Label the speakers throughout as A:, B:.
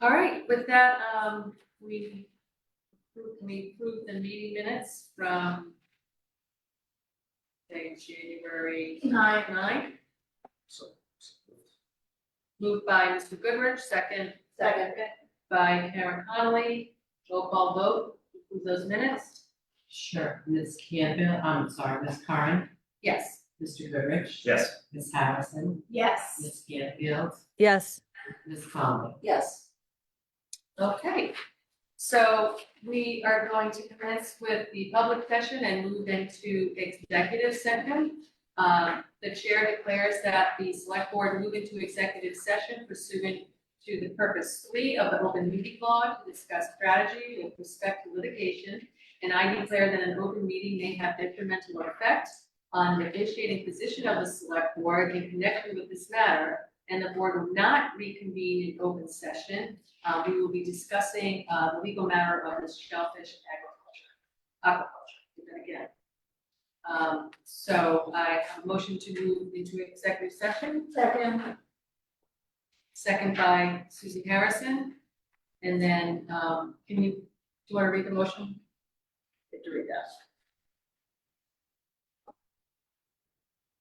A: All right, with that, um, we, approve- we approve the meeting minutes from say, January nine, nine,
B: So.
A: moved by Mr. Goodrich, second.
C: Second.
A: By Karen Connolly, roll call vote, approve those minutes?
C: Sure, Ms. Campbell, I'm sorry, Ms. Karen,
A: Yes.
C: Mr. Goodrich.
B: Yes.
C: Ms. Harrison,
A: Yes.
C: Ms. Campbell,
D: Yes,
C: Ms. Conley.
A: Yes. Okay, so we are going to commence with the public session and move into executive session. Um, The chair declares that the select board move into executive session pursuant to the purpose three of the open meeting law to discuss strategy with respect to litigation. And I declare that an open meeting may have detrimental effect on the negotiating position of the select board in connection with this matter and the board will not reconvene in open session. Uh, we will be discussing, uh, the legal matter of the shellfish agriculture, aquaculture, even again. Um, so I have a motion to move into executive session,
E: Second.
A: second by Susie Harrison. And then, um, can you, do you want to read the motion? Get to read that.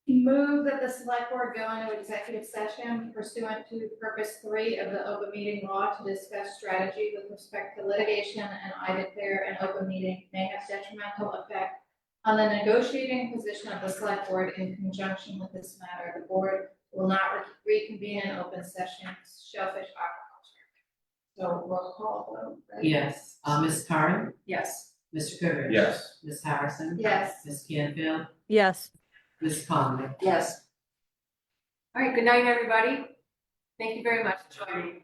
E: Move that the select board go into executive session pursuant to purpose three of the open meeting law to discuss strategy with respect to litigation, and I declare an open meeting may have detrimental effect on the negotiating position of the select board in conjunction with this matter. The board will not re- reconvene in open session, shellfish aquaculture. So roll call vote, right?
C: Yes, uh, Ms. Karen,
A: Yes.
C: Mr. Goodrich.
B: Yes.
C: Ms. Harrison.
E: Yes.
C: Ms. Campbell,
D: yes.
C: Ms. Conley.
A: Yes. All right, good night, everybody. Thank you very much for joining.